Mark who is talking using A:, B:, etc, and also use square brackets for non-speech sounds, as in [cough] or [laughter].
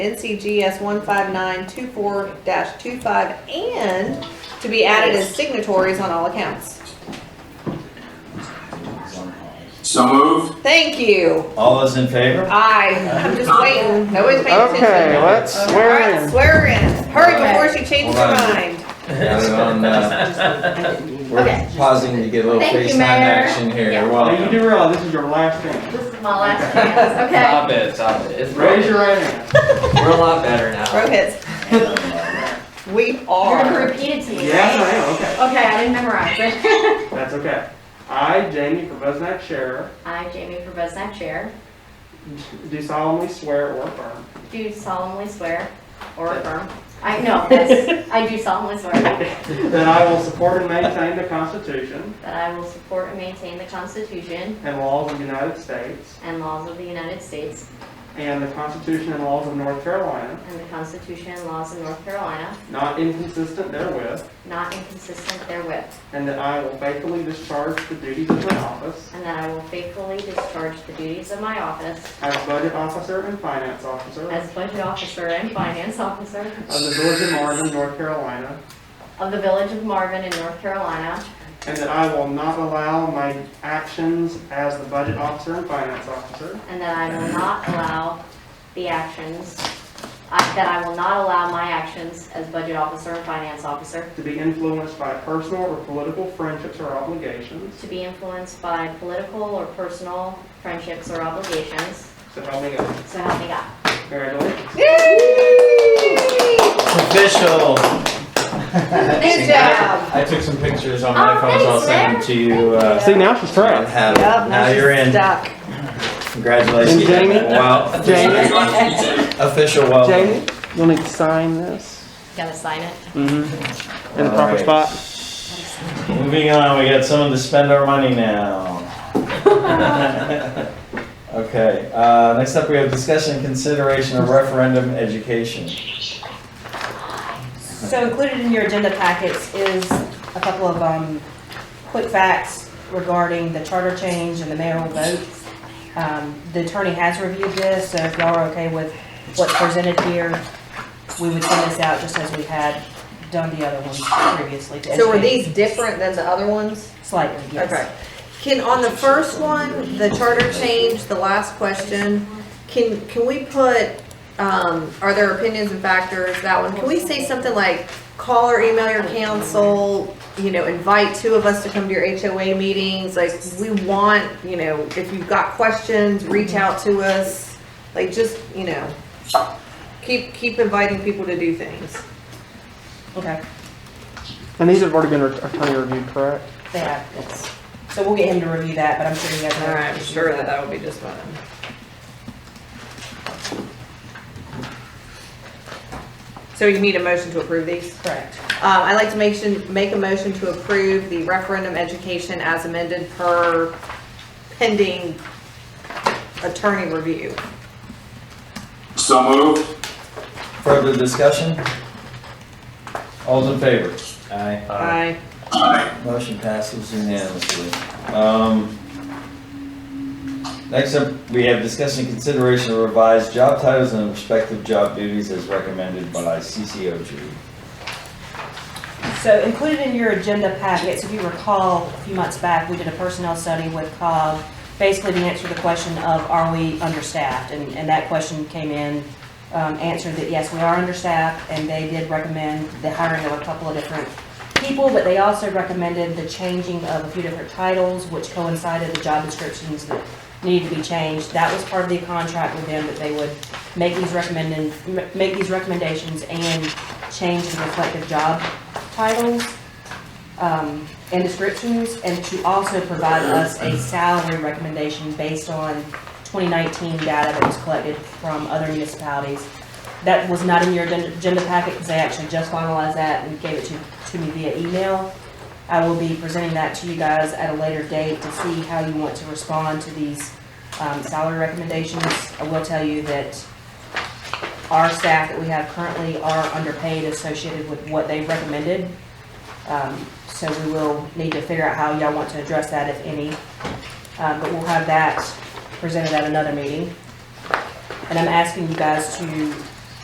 A: NCGS 15924-25 and to be added as signatories on all accounts.
B: So
A: [laughs]
B: moved.
A: Thank you.
C: All those in
D: [laughs]
C: favor?
A: I, I'm just waiting. Nobody's paying attention.
E: Okay, let's swear
A: Alright,
E: in.
A: swear in. Hurry before she changes her
B: Hold on.
A: mind.
B: Got it on, uh, We're
D: Okay.
B: pausing to get a little
D: Thank you,
B: FaceTime
D: Mayor.
B: action here. You're
E: Now, you
B: welcome.
E: do realize this is your last chance.
D: This is my last chance, okay?
F: Stop it, stop it. It's
E: Raise your
F: right.
E: right hand.
F: We're a lot better now.
A: Rohit, we
D: You're gonna
A: are.
D: repeat it to me, right?
E: Yes, I am, okay.
D: Okay, I didn't memorize it. [laughs]
E: That's okay. I, Jamie Provoznak, Sheriff,
D: I, Jamie Provoznak, Chair,
E: do solemnly swear or affirm
D: do solemnly swear or affirm, I, no, yes, I do solemnly swear
E: that I will support and maintain the Constitution
D: that I will support and maintain the Constitution
E: and laws of the United States
D: and laws of the United States
E: and the Constitution and laws of North Carolina,
D: and the Constitution and laws of North Carolina,
E: not inconsistent therewith,
D: not inconsistent therewith,
E: and that I will faithfully discharge the duties of my office
D: and that I will faithfully discharge the duties of my office
E: as Budget Officer and Finance Officer
D: as Budget Officer and Finance Officer
E: of the Village of Marvin, North Carolina,
D: of the Village of Marvin in North Carolina,
E: And that I will not allow my actions as the budget officer and finance officer
D: And that I will not allow the actions, I- that I will not allow my actions as budget officer and finance officer
E: to be influenced by personal or political friendships or obligations.
D: to be influenced by political or personal friendships or obligations,
E: So help me God.
D: so help me God.
E: Congratulations.
A: Yay!
C: [laughs] Official.
A: Good job.
C: I took some pictures on
D: Oh,
C: my phone, so I'll
D: thanks,
C: send them to you. uh,
E: See, now she's
C: and
E: trapped.
C: have
A: Yup,
C: it. Now
A: she's
C: you're in.
A: Stuck.
C: Congratulations.
E: And Jamie?
C: Wow.
E: Jamie,
C: Official welcome.
E: Jamie, you'll need to sign this
D: Gotta sign it.
E: in
C: All
E: the proper
C: right.
E: spot.
C: Moving on, we got someone to spend our
D: [laughs]
C: money now. [laughs] Okay, uh, next up, we have discussion and consideration of referendum education.
G: So included in your agenda packets is a couple of um, quick facts regarding the charter change and the mayoral vote. Um, The attorney has reviewed this, so if y'all are okay with what's presented here, we would send this out just as we had done the other ones previously. to
A: So were
G: educate
A: these different than the other ones?
G: Slightly, yes.
A: Okay. Can, on the first one, the charter change, the last question, can, can we put, um, are there opinions and factors, that one? Can we say something like, call or email your council, you know, invite two of us to come to your HOA meetings? Like, we want, you know, if you've got questions, reach out to us. Like, just, you know, keep, keep inviting people to do things.
G: Okay,
E: And these have already been attorney reviewed, correct?
G: they have, yes. So we'll get him to review that, but I'm sure you guys
A: All
G: are.
A: right, I'm sure that that would be just fine. So you need a motion to approve these?
G: Correct.
A: Uh, I'd like to make, shin- make a motion to approve the referendum education as amended per pending attorney review.
B: So moved.
C: Further discussion? All's in favor? Aye.
A: Aye.
C: Motion passes unanimously. Um, Next up, we have discussion and consideration of revised job titles and respective job duties as recommended by CCOG.
G: So included in your agenda packets, if you recall, a few months back, we did a personnel study with COG, basically to answer the question of, are we understaffed? And, and that question came in, um, answered that, yes, we are understaffed, and they did recommend the hiring of a couple of different people, but they also recommended the changing of a few different titles, which coincided the job descriptions that needed to be changed. That was part of the contract with them, that they would make these recommended, make these recommendations and change the reflective job titles um, and descriptions, and to also provide us a salary recommendation based on 2019 data that was collected from other municipalities. That was not in your agenda agenda packet, because they actually just finalized that and gave it to, to me via email. I will be presenting that to you guys at a later date to see how you want to respond to these um, salary recommendations. I will tell you that our staff that we have currently are underpaid associated with what they recommended. Um, So we will need to figure out how y'all want to address that, if any. Uh, But we'll have that presented at another meeting. And I'm asking you guys to